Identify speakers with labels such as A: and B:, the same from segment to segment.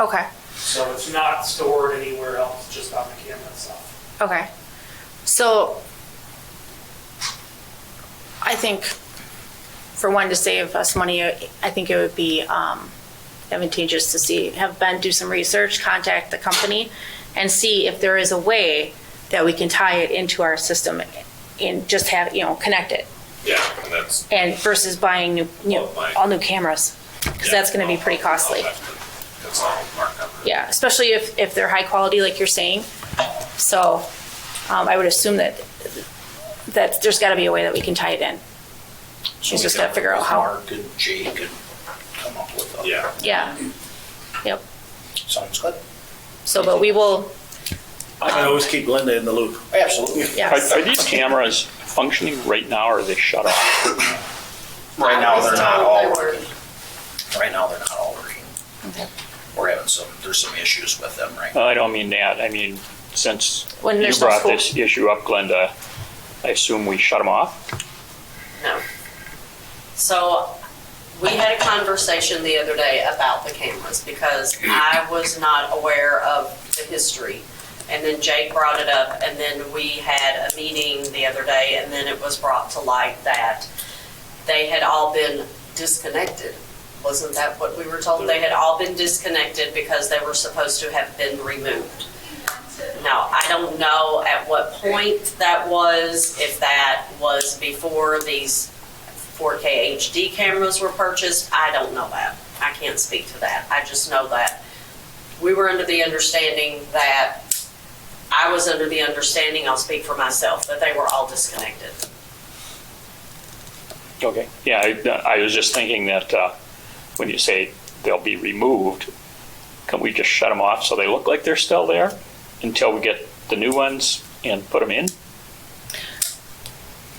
A: Okay.
B: So it's not stored anywhere else, just on the camera itself.
A: Okay. So I think for one to save us money, I think it would be um, advantageous to see, have Ben do some research, contact the company and see if there is a way that we can tie it into our system and just have, you know, connect it.
C: Yeah, and that's.
A: And versus buying new, new, all new cameras. Cause that's gonna be pretty costly.
C: That's all markup.
A: Yeah, especially if, if they're high quality, like you're saying. So um, I would assume that, that there's got to be a way that we can tie it in. She's just got to figure out how.
D: Mark and Jake and come up with a.
C: Yeah.
A: Yeah. Yep.
D: Sounds good.
A: So, but we will,
E: I can always keep Linda in the loop.
D: Oh, Absolutely.
F: Are,
A: yes.
F: are these cameras functioning right now, or are they shut off?
D: Right now, they're
A: uh,
D: not all
G: They were.
D: working. Right now, they're not all working.
A: Okay.
D: We're having some, there's some issues with them right now.
F: Well, I don't mean that. I mean, since
A: When
F: you
A: there's no
F: brought
A: school.
F: this issue up, Glenda, I assume we shut them off?
G: No. So we had a conversation the other day about the cameras because I was not aware of the history. And then Jake brought it up and then we had a meeting the other day and then it was brought to light that they had all been disconnected. Wasn't that what we were told? They had all been disconnected because they were supposed to have been removed. Now, I don't know at what point that was, if that was before these 4K HD cameras were purchased. I don't know that. I can't speak to that. I just know that we were under the understanding that, I was under the understanding, I'll speak for myself, that they were all disconnected.
F: Okay. Yeah, I, I was just thinking that uh, when you say they'll be removed, can we just shut them off so they look like they're still there until we get the new ones and put them in?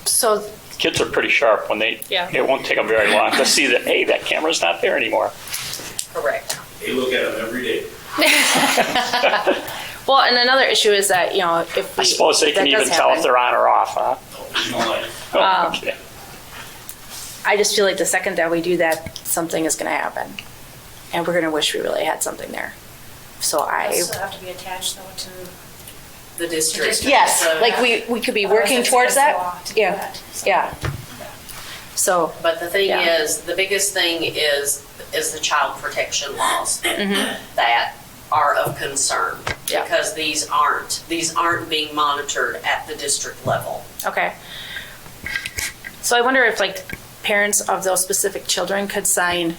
A: So,
F: Kids are pretty sharp when they.
A: Yeah.
F: It won't take them very long to see that. Hey, that camera's not there anymore.
G: Correct.
H: They look at them every day.
A: well, and another issue is that, you know, if we.
F: I suppose they can
A: that does
F: even tell
A: happen. Um,
F: if they're on or off, huh?
H: You know, like,
F: Oh,
A: Wow.
F: okay.
A: I just feel like the second that we do that, something is going to happen. And we're going to wish we really had something there. So I,
I: Still have to be attached though to.
G: The district.
A: yes,
G: So-
A: like we, we could be working towards that. Yeah.
I: Yeah.
A: Yeah. So,
G: But the thing
A: Yeah.
G: is, the biggest thing is, is the child protection laws that are of concern.
A: Mm-hmm. Yeah.
G: Because these aren't, these aren't being monitored at the district level.
A: okay. So I wonder if like parents of those specific children could sign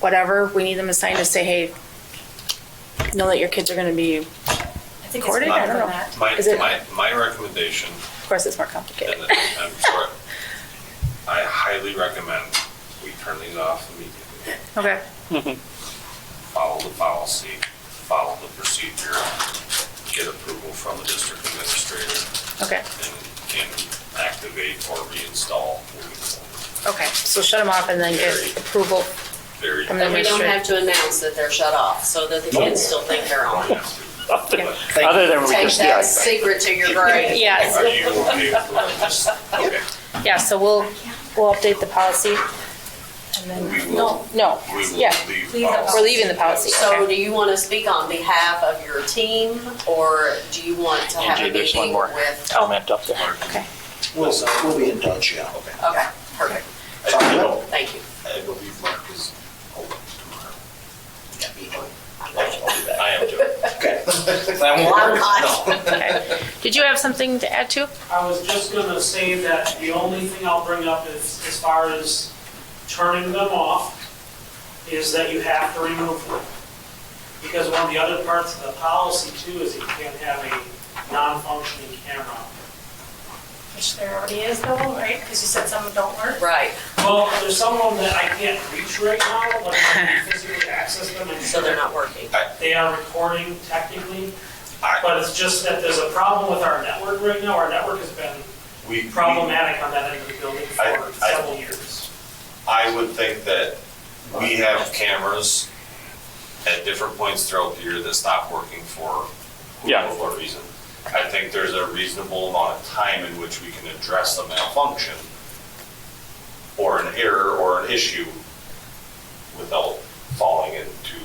A: whatever we need them to sign to say, hey, know that your kids are going to be, of
I: I think it's
A: Recorded? I
I: more
A: don't
I: than
A: know.
I: that.
C: My,
A: Is it-
C: my, my recommendation,
A: course, it's more
C: and
A: complicated.
C: I'm sure, I highly recommend we turn these off immediately.
A: Okay.
C: Follow the policy, follow the procedure, get approval from the district administrator,
A: Okay.
C: and can activate or reinstall. moving forward.
A: Okay. So shut them off and then get approval.
C: Very.
A: From the
G: And we don't
A: District.
G: have to announce that they're shut off, so that the kids still think they're on.
F: Other other than we
G: Take
F: just, yeah.
G: that secret to your grave.
A: Yes.
C: Are you okay with this? Okay.
A: Yeah. So we'll, we'll update the policy. And then,
C: We
A: no,
C: will,
A: no.
C: we will
A: Yeah. uh,
C: leave. Uh,
I: Leave the
C: policy.
A: We're leaving the policy.
G: So
A: okay.
G: do you want to speak on behalf of your team, or do you want to have a
F: Angie, there's one
G: meeting
F: more
G: with?
F: comment up there.
A: Okay.
D: We'll, we'll be in touch, yeah.
G: Okay, perfect,
D: Sounds good.
G: thank you.
C: I believe Mark is away tomorrow.
D: Yeah, be good. I'll be back.
C: I am joking.
D: Okay. That won't
G: Well, I'm
D: work?
G: not.
D: No.
A: okay. Did you have something to add to?
B: I was just gonna say that the only thing I'll bring up is, as far as turning them off, is that you have to remove them. Because one of the other parts of the policy too is that you can't have a non-functioning camera.
I: Which there already is though, right? Because you said some don't work.
G: Right,
B: Well, there's some of them that I can't reach right now, but I can physically access them and
G: so they're not working.
B: They are recording technically,
C: I-
B: but it's just that there's a problem with our network right now. Our network has been
C: We, we-
B: problematic on that end of the building
C: I-
B: for
C: I-
B: several years.
C: I would think that we have cameras at different points throughout the year that stop working for who
F: Yeah.
C: knows what reason. I think there's a reasonable amount of time in which we can address a malfunction or an error or an issue without